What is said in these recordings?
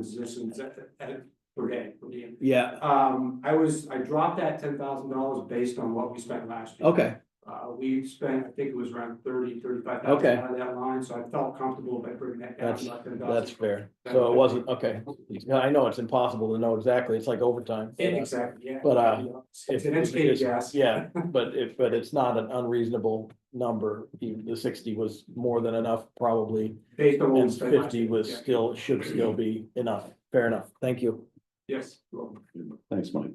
positions at, at, per day, per diem. Yeah, Um, I was, I dropped that ten thousand dollars based on what we spent last year. okay, Uh, we spent, I think it was around thirty, thirty-five thousand Okay. out of that line, so I felt comfortable by bringing that down. That's- about $10,000. that's fair. So it wasn't, okay. No, I know it's impossible to know exactly. It's like overtime. Exactly, yeah. But, uh, It's if- an if- educated if- guess. Yeah, but if, but it's not an unreasonable number. Even the sixty was more than enough probably. Based on what we And spent last fifty year. was Yeah. still, should still be enough. Fair enough. Thank you. Yes, well, Thanks, Mike.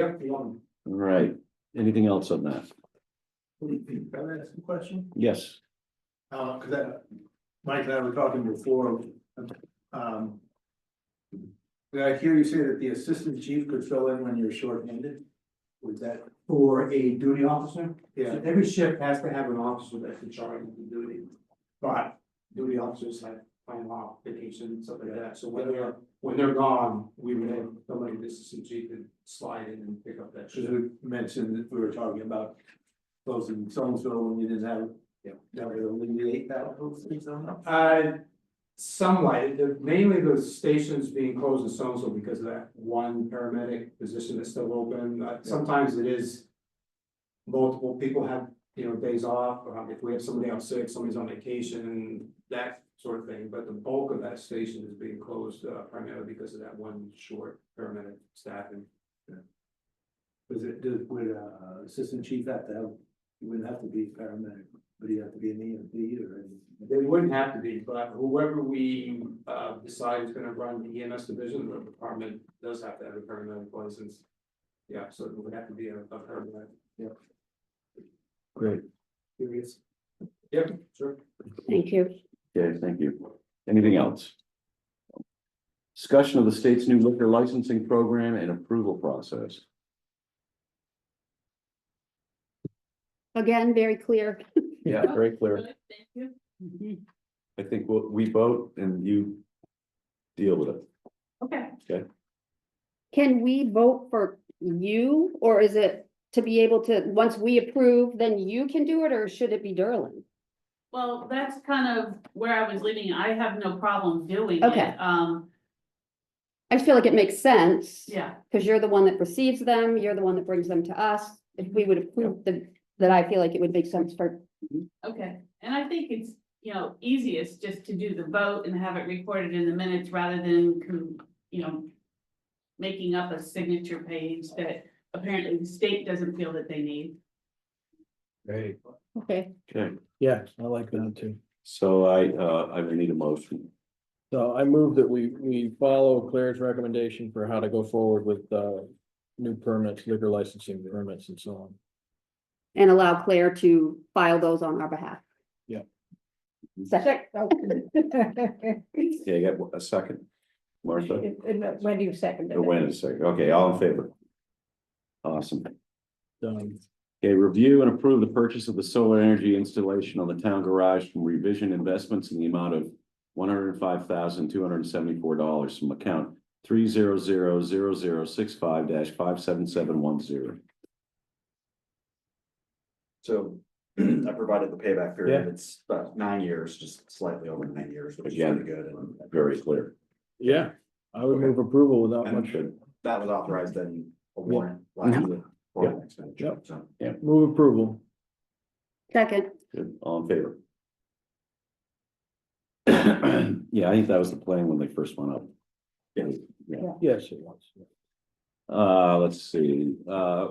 yep, one. All right, anything else on that? Can I ask a question? Yes, Uh, cause I, Mike and I were talking before, um. Did I hear you say that the assistant chief could fill in when you're shorthanded? Was that, For a duty officer? yeah, So Every ship has to have an officer that's in charge of the duty. But duty officers have plan off vacation and stuff like that, so when they're, when they're gone, we would have somebody that's assistant chief and slide in and pick up that cause shift. we mentioned that we were talking about closing Somersville when you didn't have. Yeah. That would alleviate that whole thing somehow. Uh, somewhat, the- mainly the stations being closed in Somerville because of that one paramedic position that's still open, Uh, sometimes it is. Multiple people have, you know, days off, or if we have somebody out sick, somebody's on vacation, that sort of thing, but the bulk of that station is being closed uh, primarily because of that one short paramedic staffing. Was it, did, would, uh, assistant chief have to have, he wouldn't have to be a paramedic, but he'd have to be an E EMT or anything? They wouldn't have to be, but whoever we uh decide is gonna run the EMS division, the department does have to have a paramedic license. Yeah, so it would have to be a a paramedic. great. Curious. Yep, sure. Thank you. Okay, thank you. Anything else? Discussion of the state's new liquor licensing program and approval process. Again, very clear. Yeah, very clear. Thank you. I think we'll- we vote and you deal with it. Okay, Can we vote for you or is it to be able to, once we approve, then you can do it or should it be Derlin? well, that's kind of where I was leading. I have no problem doing it. Okay. Um, I just feel like it makes sense. yeah, Cause you're the one that receives them, you're the one that brings them to us. If we would approve the, that I feel like it would make sense for, okay. And I think it's, you know, easiest just to do the vote and have it recorded in the minutes rather than, com- you know, making up a signature page that apparently the state doesn't feel that they need. Great. okay, Okay, Yeah, I like that too. so I, uh, I would need a motion. So I move that we, we follow Claire's recommendation for how to go forward with, uh, new permits, liquor licensing permits and so on. and allow Claire to file those on our behalf. Yeah. Second, oh. Yeah, you got a second? Martha, When do you second or wait a second. Okay, all in favor? Awesome. Done. Okay, review and approve the purchase of the solar energy installation on the town garage from Revision Investments in the amount of one hundred and five thousand, two hundred and seventy-four dollars from account three zero zero zero zero six five dash five seven seven one zero. So I provided the payback period. It's about nine years, just slightly over nine years, which is Again. pretty good. And Very clear. Yeah, I would move approval without And much, Good. that was authorized in a warrant last year. for an expenditure, so. move approval. second, Good. All in favor? Yeah, I think that was the plan when they first went up. Yes. Yes, it was. Uh, let's see, uh.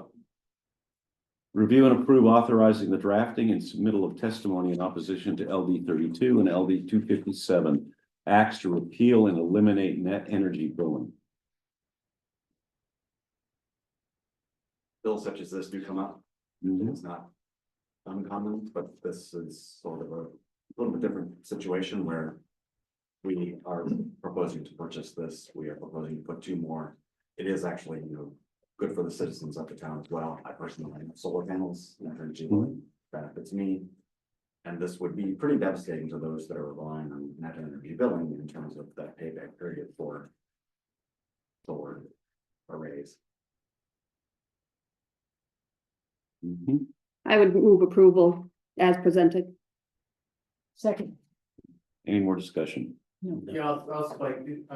Review and approve authorizing the drafting and submittal of testimony in opposition to LD thirty-two and LD two fifty-seven. Acts to repeal and eliminate net energy billing. Bills such as this do come up. It's not uncommon, but this is sort of a little bit different situation where we are proposing to purchase this. We are proposing to put two more. It is actually, you know, good for the citizens of the town as well. I personally have solar panels, and energy benefits me. And this would be pretty devastating to those that are relying on net energy billing in terms of that payback period for solar arrays. Mhm. I would move approval as presented. Second. Any more discussion? Yeah, I'll, I'll spike,